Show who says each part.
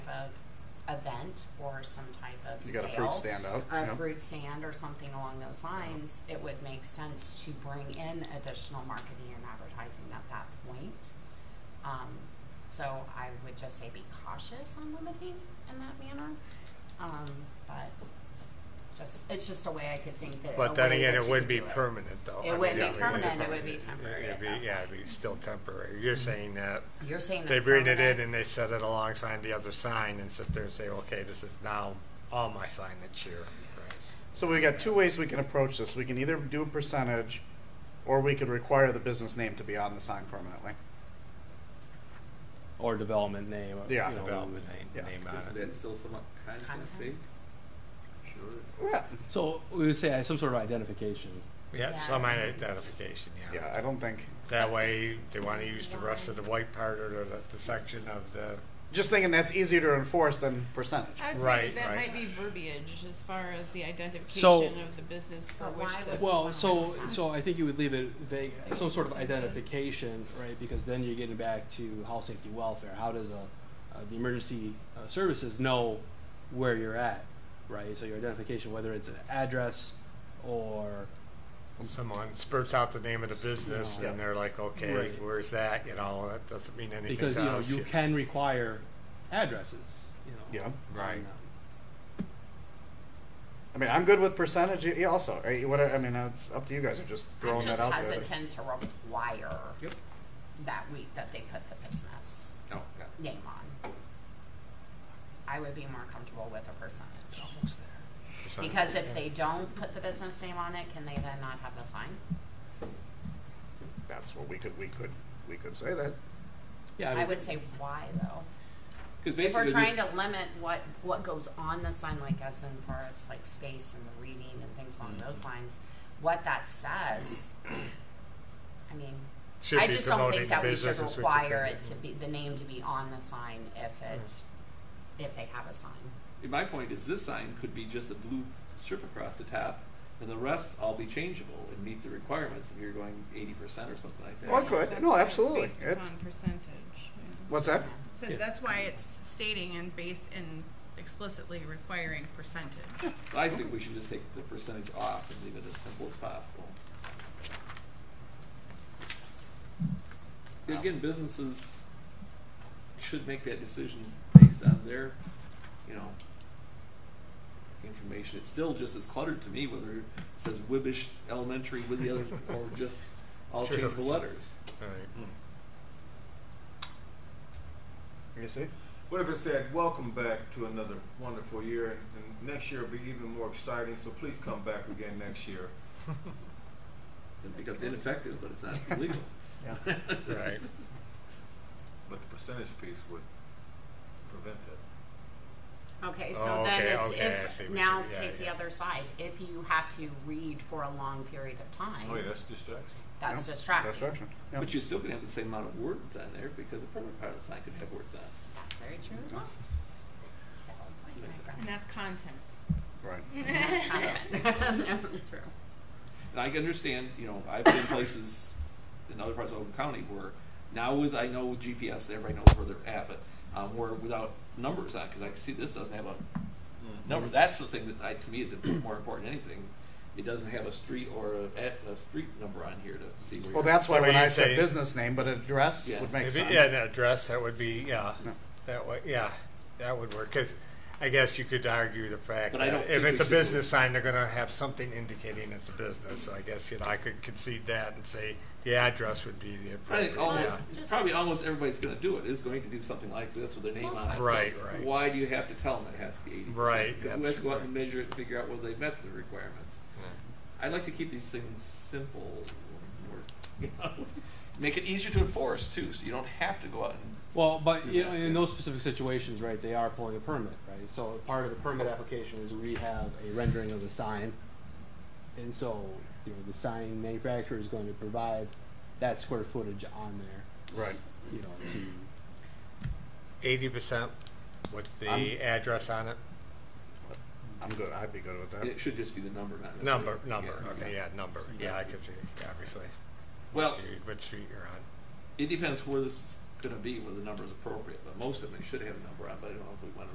Speaker 1: event or some type of
Speaker 2: You got a
Speaker 1: sale,
Speaker 2: fruit stand out,
Speaker 1: a
Speaker 2: yeah.
Speaker 1: fruit stand or something along those lines, it would make sense to bring in additional marketing and advertising at that point. Um, so I would just say be cautious on limiting in that manner. Um, but just it's just a way I could think that. a
Speaker 3: But then
Speaker 1: way
Speaker 3: again,
Speaker 1: that
Speaker 3: it
Speaker 1: you
Speaker 3: would
Speaker 1: could
Speaker 3: be
Speaker 1: do
Speaker 3: permanent, though.
Speaker 1: It
Speaker 3: I mean,
Speaker 1: would
Speaker 2: be
Speaker 3: yeah, it
Speaker 2: permanent, it
Speaker 1: would be
Speaker 3: permanent.
Speaker 1: temporary
Speaker 3: It'd be-
Speaker 1: at that
Speaker 3: Yeah,
Speaker 1: point.
Speaker 3: it'd be still temporary. You're saying that
Speaker 1: You're saying
Speaker 3: they
Speaker 1: that
Speaker 3: bring it
Speaker 1: permanent-
Speaker 3: in and they set it alongside the other sign and sit there and say, okay, this is now all my signage here.
Speaker 2: So we got two ways we can approach this. We can either do a percentage, or we could require the business name to be on the sign permanently.
Speaker 4: or development name. or,
Speaker 2: Yeah,
Speaker 4: you know,
Speaker 3: development
Speaker 4: name-
Speaker 2: yeah.
Speaker 4: name on
Speaker 5: Isn't
Speaker 4: it.
Speaker 5: that still somewhat content
Speaker 1: Content?
Speaker 5: based? Sure.
Speaker 2: Yeah.
Speaker 4: So we would say uh, some sort of identification.
Speaker 3: Yeah,
Speaker 1: Yeah,
Speaker 3: some
Speaker 1: it's-
Speaker 3: identification, yeah.
Speaker 2: Yeah, I don't think.
Speaker 3: That way, they want to use the rest of the white part or the, the section of the,
Speaker 2: Just thinking that's easier to enforce than percentage.
Speaker 6: I would say
Speaker 3: Right,
Speaker 6: that, that
Speaker 3: right.
Speaker 6: might be verbiage as far as the identification
Speaker 4: So-
Speaker 6: of the business for
Speaker 1: But
Speaker 6: which
Speaker 1: why
Speaker 6: the
Speaker 1: would-
Speaker 4: Well, so, so I think you would leave it vague, some sort of identification, right, because then you're getting back to health, safety, welfare. How does a, uh, the emergency uh, services know where you're at, right? So your identification, whether it's an address or,
Speaker 3: someone spurts out the name of the business
Speaker 2: Yeah.
Speaker 3: and they're like, okay,
Speaker 4: Right.
Speaker 3: where's that? You know, that doesn't mean anything
Speaker 4: because, you
Speaker 3: to
Speaker 4: know,
Speaker 3: us.
Speaker 4: you can require addresses, you know.
Speaker 2: Yeah.
Speaker 3: Right.
Speaker 4: on, uh,
Speaker 2: I mean, I'm good with percentage. Yeah, also, I, what I, I mean, uh, it's up to you guys. I'm just throwing
Speaker 1: I'm just
Speaker 2: that out there.
Speaker 1: hesitant to require
Speaker 5: Yep.
Speaker 1: that week that they put the business
Speaker 5: No, yeah.
Speaker 1: name on. I would be more comfortable with a percentage.
Speaker 4: Almost there.
Speaker 1: Because if they don't put the business name on it, can they then not have the sign?
Speaker 2: That's what we could we could we could say that.
Speaker 4: Yeah.
Speaker 1: I
Speaker 4: mean-
Speaker 1: would say why though.
Speaker 5: Because
Speaker 1: If we're
Speaker 5: basically,
Speaker 1: trying
Speaker 5: this,
Speaker 1: to limit what, what goes on the sign, like as in far as like space and the reading and things along those lines, what that says, I mean,
Speaker 3: Should
Speaker 1: I
Speaker 3: be
Speaker 1: just don't
Speaker 3: promoting
Speaker 1: think
Speaker 3: the
Speaker 1: that we should
Speaker 3: business is what you
Speaker 1: require
Speaker 3: think.
Speaker 1: it to be, the name to be on the sign if it, if they have a sign.
Speaker 5: my point is, this sign could be just a blue strip across the top, and the rest all be changeable and meet the requirements if you're going 80% or something like that.
Speaker 2: Well, I could.
Speaker 6: That's
Speaker 2: Oh, No,
Speaker 6: why it's
Speaker 2: absolutely.
Speaker 6: based
Speaker 2: It's-
Speaker 6: upon percentage. yeah.
Speaker 2: What's that?
Speaker 6: So
Speaker 4: Yeah.
Speaker 6: that's why it's stating and based and explicitly requiring percentage.
Speaker 5: I think we should just take the percentage off and leave it as simple as possible. Again, businesses should make that decision based on their, you know, information. It's still just as cluttered to me whether it says Wibbish Elementary with the others or just all
Speaker 3: Sure.
Speaker 5: changeable letters.
Speaker 3: All right.
Speaker 4: Hmm.
Speaker 2: You see?
Speaker 7: What if it said, welcome back to another wonderful year, and, and next year will be even more exciting, so please come back again next year.
Speaker 5: It becomes ineffective, but it's not illegal.
Speaker 2: Yeah.
Speaker 3: Right.
Speaker 7: But the percentage piece would prevent that.
Speaker 1: Okay,
Speaker 3: Oh,
Speaker 1: so then
Speaker 3: okay,
Speaker 1: it's
Speaker 3: okay, I see
Speaker 1: if,
Speaker 3: what you-
Speaker 1: now
Speaker 3: yeah,
Speaker 1: take the
Speaker 3: yeah.
Speaker 1: other side, if you have to read for a long period of
Speaker 7: Oh, yeah,
Speaker 1: time,
Speaker 7: that's distraction.
Speaker 1: that's
Speaker 2: Yeah,
Speaker 1: distracting.
Speaker 2: Distraction. Yeah.
Speaker 5: But you're still gonna have the same amount of words on there because the permanent part of the sign could have words on it.
Speaker 1: That's very true as well.
Speaker 6: And that's content.
Speaker 2: right.
Speaker 1: That's content. True.
Speaker 5: And I can understand, you know, I've been places in other parts of Oakland County where now with, I know with GPS, everybody knows where they're at, but um, where without numbers on, because I can see this doesn't have a
Speaker 7: Hmm.
Speaker 5: number.
Speaker 3: Mm-hmm.
Speaker 5: That's the thing that I, to me is more important than anything. It doesn't have a street or a, at- a street number on here to see
Speaker 2: Well,
Speaker 5: where you're.
Speaker 2: that's why
Speaker 3: So
Speaker 2: when
Speaker 3: you
Speaker 2: I said
Speaker 3: say-
Speaker 2: business name, but address
Speaker 5: Yeah.
Speaker 2: would make
Speaker 3: If it-
Speaker 2: sense.
Speaker 3: Yeah, an address, that would be, yeah,
Speaker 2: Yeah.
Speaker 3: that would, yeah, that would work, because I guess you could argue the fact
Speaker 5: But I
Speaker 3: that
Speaker 5: don't
Speaker 3: if
Speaker 5: think
Speaker 3: it's a
Speaker 5: we should-
Speaker 3: business sign, they're gonna have something indicating it's a business, so I guess, you know, I could concede that and say the address would be the
Speaker 5: I think
Speaker 3: appropriate,
Speaker 5: almost,
Speaker 3: yeah.
Speaker 1: Just-
Speaker 5: probably almost everybody's going to do it, is going to do something like this with their name
Speaker 1: Most
Speaker 5: on it. So
Speaker 3: Right, right.
Speaker 5: Why do you have to tell them it has to be 80%?
Speaker 3: Right,
Speaker 5: Because we
Speaker 3: that's
Speaker 5: have to go out
Speaker 3: right.
Speaker 5: and measure it and figure out whether they met the requirements. I like to keep these things simple, or, you know, make it easier to enforce too, so you don't have to go out and.
Speaker 4: Well, but you know, in those specific situations, right, they are pulling a permit, right? So part of the permit application is we have a rendering of the sign. And so, you know, the sign manufacturer is going to provide that square footage on there,
Speaker 2: Right.
Speaker 4: you know, to,
Speaker 3: Eighty percent with the
Speaker 2: I'm-
Speaker 3: address on it,
Speaker 2: I'm good. I'd be good with that.
Speaker 5: It should just be the number, not necessarily-
Speaker 3: number, number,
Speaker 5: Yeah.
Speaker 3: okay, yeah, number, yeah, I could see, obviously,
Speaker 5: Well,
Speaker 3: what street you're on.
Speaker 5: it depends where this is gonna be, where the number is appropriate, but most of them, they should have a number on, but I don't know if we wanna